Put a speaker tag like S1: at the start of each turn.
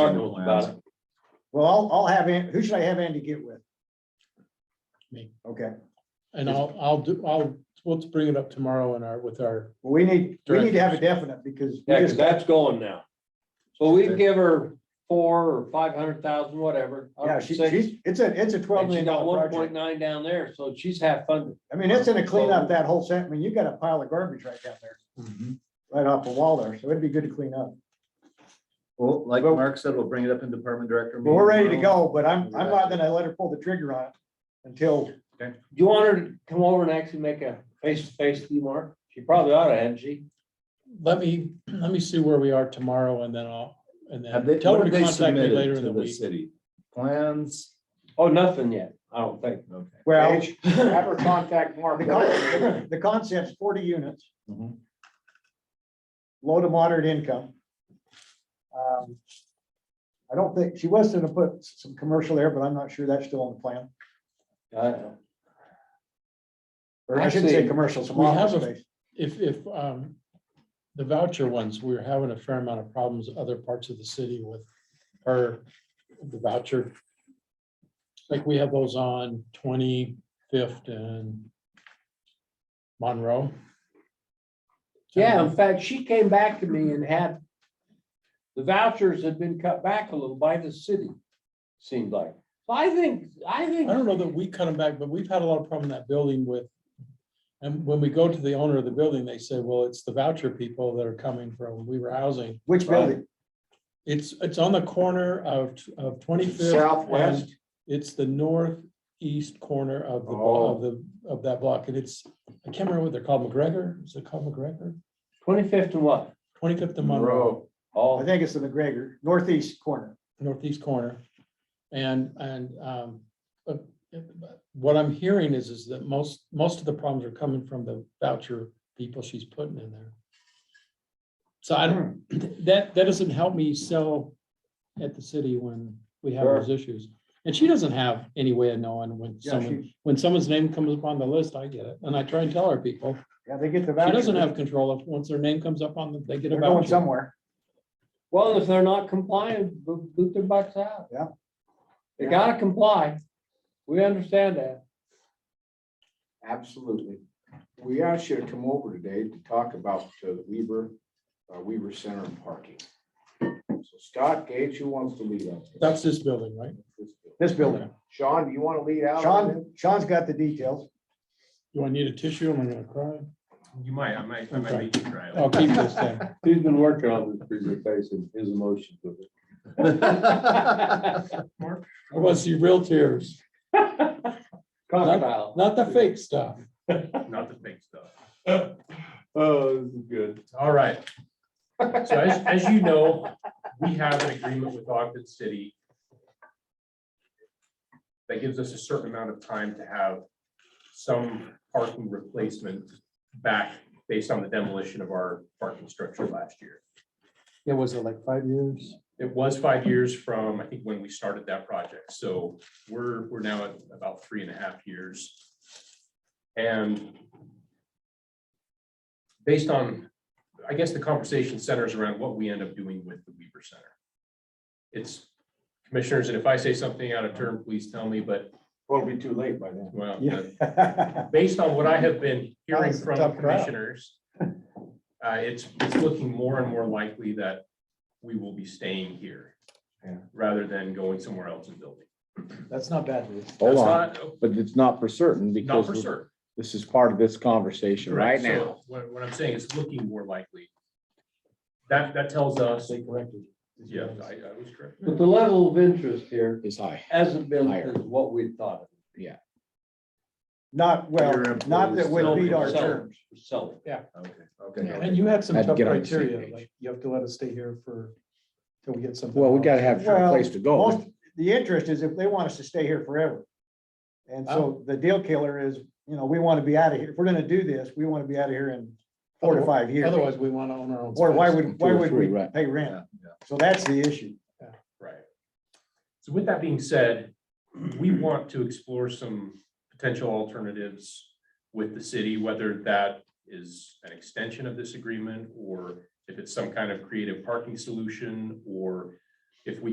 S1: talk to them about it.
S2: Well, I'll, I'll have, An- who should I have Andy get with?
S3: Me.
S2: Okay,
S3: And I'll, I'll do, I'll, we'll bring it up tomorrow in our, with our,
S2: well, we need, we need to have a definite because. we
S1: Yeah,
S2: just
S1: because that's going now. So we can
S2: Okay.
S1: give her four or five hundred thousand, whatever. up
S2: Yeah,
S1: to
S2: she,
S1: six,
S2: she's, it's a, it's a twelve
S1: And she
S2: million
S1: got one
S2: dollar
S1: point
S2: project.
S1: nine down there, so she's half funded.
S2: I mean, it's gonna clean up that whole set, I mean, you got a pile of garbage right down there,
S4: Mm-hmm.
S2: right off the wall there, so it'd be good to clean up.
S4: Well, like
S2: Well-
S4: Mark said, we'll bring it up in department director.
S2: But we're ready to
S4: meeting tomorrow.
S2: go, but I'm, I'm not gonna let her pull the trigger on it until,
S1: You want her to come over and actually make a face-to-face with you, Mark? She probably ought to, hadn't she?
S3: let me, let me see where we are tomorrow and then I'll, and
S4: Have they,
S3: then tell
S4: what
S3: her
S4: have
S3: to
S4: they
S3: contact me later in
S4: submitted to
S3: the
S4: the
S3: week.
S4: city? Plans?
S1: Oh, nothing yet, I don't think.
S4: Okay.
S2: well,
S5: Have her contact Mark.
S2: the con- the concept's forty units.
S4: Mhm.
S2: low to moderate income. Um, I don't think, she was gonna put s- some commercial there, but I'm not sure that's still on the plan.
S1: I don't know.
S2: Or I shouldn't say
S1: Actually,
S2: commercial, some
S3: we
S2: office
S3: have a-
S2: space.
S3: If, if, um, the voucher ones, we're having a fair amount of problems, other parts of the city with her, the voucher. Like we have those on twenty-fifth and Monroe.
S1: Yeah, in fact, she came back to me and had, the vouchers had been cut back a little by the city, seemed like. So I think, I think.
S3: I don't know that we cut them back, but we've had a lot of problem in that building with, and when we go to the owner of the building, they say, well, it's the voucher people that are coming from Weaver Housing.
S2: Which building?
S3: It's, it's on the corner of, of twenty-fifth.
S1: Southwest?
S3: It's the northeast corner of the, blo- of the, of that block, and it's, I can't remember what they're called, McGregor, is it called McGregor?
S1: Twenty-fifth and what?
S3: Twenty-fifth of Monroe,
S2: I
S1: Oh,
S2: think it's the McGregor, northeast corner.
S3: northeast corner. And, and, um, but but what I'm hearing is, is that most, most of the problems are coming from the voucher people she's putting in there. So I don't, that, that doesn't help me sell at the city when we have those issues. And she doesn't have any way of knowing when
S2: Yeah,
S3: someone,
S2: she,
S3: when someone's name comes up on the list, I get it, and I try and tell our people,
S2: yeah, they get the
S3: she
S2: voucher.
S3: doesn't have control of, once their name comes up on them, they get a
S2: They're going
S3: voucher.
S2: somewhere.
S1: well, if they're not compliant, bo- boot their butts out.
S2: Yeah.
S1: They gotta comply. We understand that.
S5: Absolutely. We asked you to come over today to talk about uh, the Weaver, uh, Weaver Center and parking. So Scott Gage, who wants to lead us?
S3: That's this building, right?
S2: This building.
S5: Sean, do you want to lead out?
S2: Sean, Sean's got the details.
S3: Do I need a tissue? Am I gonna cry?
S6: You might, I might, I
S3: Okay.
S6: might make you try it.
S3: I'll keep this thing.
S1: He's been working on this presentation, his emotions with it.
S3: I want to see real tears,
S1: Crocodile.
S3: not the fake stuff.
S6: Not the fake stuff.
S1: Oh, this is good.
S6: All right. So as, as you know, we have an agreement with Ogden City that gives us a certain amount of time to have some parking replacement back based on the demolition of our parking structure last year.
S3: It was it like five years?
S6: It was five years from, I think, when we started that project. So we're, we're now at about three and a half years. And based on, I guess the conversation centers around what we end up doing with the Weaver Center. It's commissioners, and if I say something out of turn, please tell me, but
S5: Well, it'll be too late by then.
S6: well,
S2: Yeah.
S6: based on what I have been hearing
S2: That's a tough
S6: from
S2: crowd.
S6: commissioners, uh, it's, it's looking more and more likely that we will be staying here
S5: Yeah.
S6: rather than going somewhere else and building.
S2: That's not bad news.
S7: Hold
S6: That's
S7: on,
S6: not-
S7: but it's not for certain
S6: Not for
S7: because
S6: certain.
S7: this is part of this conversation right
S6: Correct. So
S7: now.
S6: What, what I'm saying is looking more likely. That, that tells us, yeah, I, I was correct.
S1: But the level of interest here
S7: Is high.
S1: hasn't been
S7: Higher.
S1: what we thought.
S2: Not, well,
S4: Your
S2: not that would
S4: employees
S2: meet our
S1: selling.
S2: terms.
S1: Selling.
S4: Okay, okay.
S3: And you had some
S7: Had to
S3: tough
S7: get on the same
S3: criteria,
S7: page.
S3: like you have to let us stay here for, till we get something.
S7: Well, we
S3: else.
S7: gotta have a
S2: Well,
S7: place to
S2: Most,
S7: go.
S2: the interest is if they want us to stay here forever. And so the deal killer is, you know, we want to be out of here. If we're gonna do this, we want to be out of here in four to five years.
S3: Otherwise, we want to own our own.
S2: Or why
S3: space.
S2: would, why
S7: Two or
S2: would
S7: three,
S2: we
S7: right.
S2: pay
S4: Yeah,
S2: rent?
S4: yeah.
S2: So that's the issue.
S6: Right. So with that being said, we want to explore some potential alternatives with the city, whether that is an extension of this agreement or if it's some kind of creative parking solution, or if we